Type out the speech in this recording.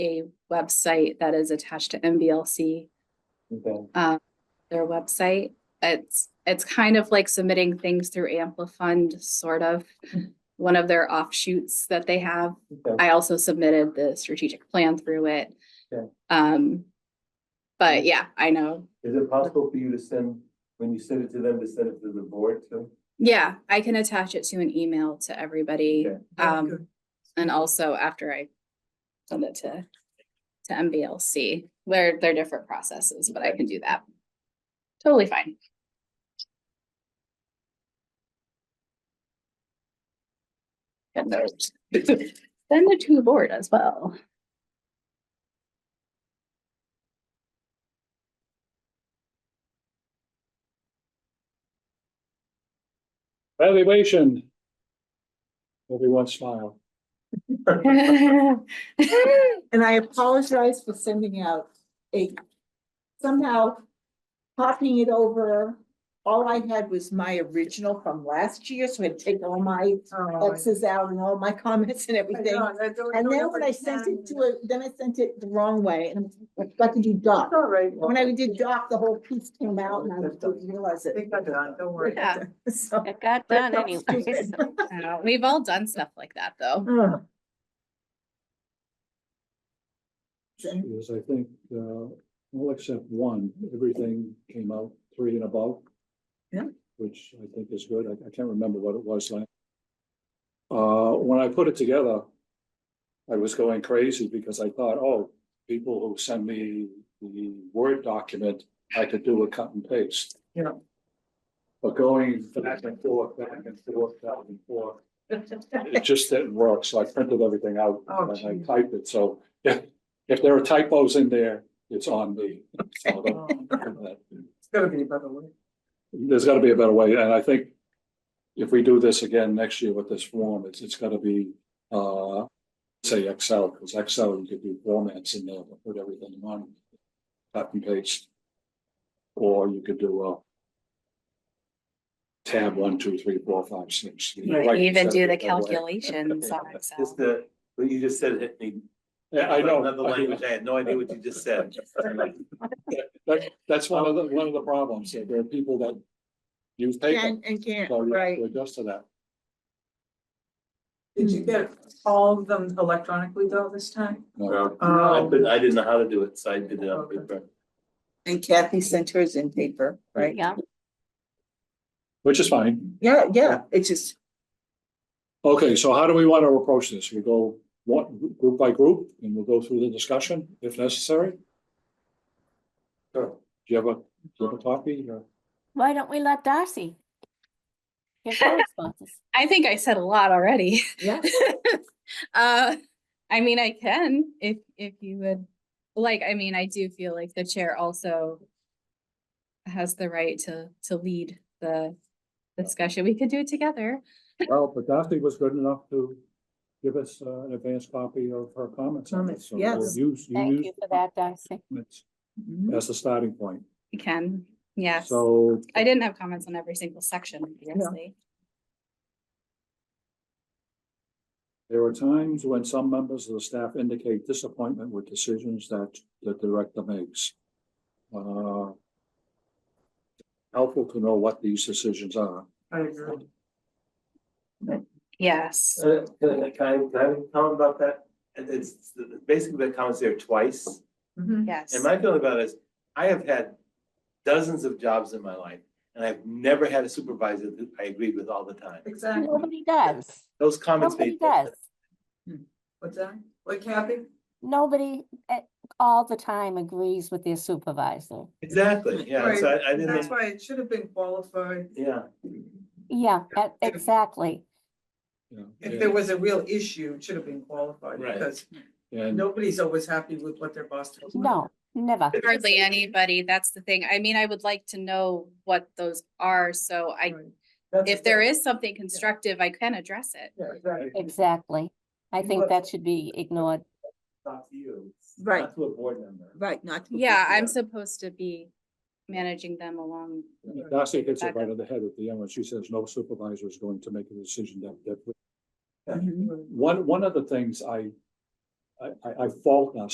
a website that is attached to MBLC, Okay, um, their website. It's, it's kind of like submitting things through Amplifund, sort of, one of their offshoots that they have. okay. I also submitted the strategic plan through it. Okay. Um, but yeah, I know. Is it possible for you to send, when you send it to them, to send it to the board too? Yeah, I can attach it to an email to everybody. Okay. Um, and also after I send it to, to MBLC, they're, they're different processes, but I can do that. Totally fine. And those. Send it to the board as well. Valuation. Everyone smile. And I apologize for sending out a, somehow copying it over. All I had was my original from last year, so I'd take all my Oh, X's out and all my comments and I everything. know, I don't And know then if when I I sent can. it to it, then I sent it the wrong way and I got to do doc. It's all right. When I did doc, the whole piece came out and I didn't realize They it. got it on, don't worry. Yeah. So, It got But done not anyway. stupid. so- I know, We've all done stuff like that, though. ugh. Yes, I think, uh, well, except one, everything came out three and above. Yeah. Which I think is good. I, I can't remember what it was like. Uh, when I put it together, I was going crazy because I thought, oh, people who send me the Word document, I could do a cut and paste. Yeah. But going back and forth, back and forth, back and forth, it just didn't work, so I printed everything out Oh, and I geez. typed it, so if, if there are typos in there, it's on me. So Oh, that- It's gotta be by the way. There's gotta be a better way, and I think if we do this again next year with this form, it's, it's gotta be, uh, say Excel, because Excel, you could do formats in there, but put everything on, cut and paste. Or you could do a tab one, two, three, four, five, six. You Even do the calculation. calculations on Excel. Just the, what you just said hit me. Yeah, I know. Another I know. language, I had no idea what you just said. That, that's one of the, one of the problems, that there are people that use paper. Can and can't, So you have right. to adjust to that. Did Hmm. you get all of them electronically though this time? No, Um, I couldn't, I didn't know how to do it, so I did it on paper. And Kathy sent hers in paper, right? Yeah, Which is fine. Yeah, yeah, it's just, Okay, so how do we want to approach this? We go one, group by group, and we'll go through the discussion if necessary? Sure. Do you have a, do you have a copy or? why don't we let Darcy? give her responses? I think I said a lot already. yeah. Uh, I mean, I can if, if you would, like, I mean, I do feel like the chair also has the right to, to lead the discussion. We could do it together. Well, but Daphne was good enough to give us uh, an advanced copy of her comments on this. So we'll Comments, yes. Use, you Thank use you for that, Darcy. comments Mhm. as the starting point. We can, yes. So I didn't have comments on every single section, obviously. There are times when some members of the staff indicate disappointment with decisions that the director makes. Uh, Helpful to know what these decisions are. I agree. Yes. Uh, Can I, can I can I comment about that? It- It's basically the comments there twice. Mm-hmm. Mhm. Yes. And my feeling about it is, I have had dozens of jobs in my life, and I've never had a supervisor that I agreed with all the time. Exactly. Nobody does. Those comments Nobody made. does. What's that? What Kathy? Nobody at all the time agrees with their supervisor. Exactly, yeah, so I, I That's didn't, why it should have been qualified. yeah, Yeah, e- exactly. you know, If there was a real issue, it should have been qualified Right. because And nobody's always happy with what their boss tells them. No, never. Hardly anybody, that's the thing. I mean, I would like to know what those are, so I, Right. That's if it. there is something constructive, I can address it. Yeah, exactly. Exactly. I think Look. that should be ignored. not to you. Right. Not to a board member. Right, not. to- Yeah, I'm supposed to be managing them along. Darcy hits it right on the head at the end when she says no supervisor is going to make a decision that, that. Mhm. One, one of the things I, I, I I fault us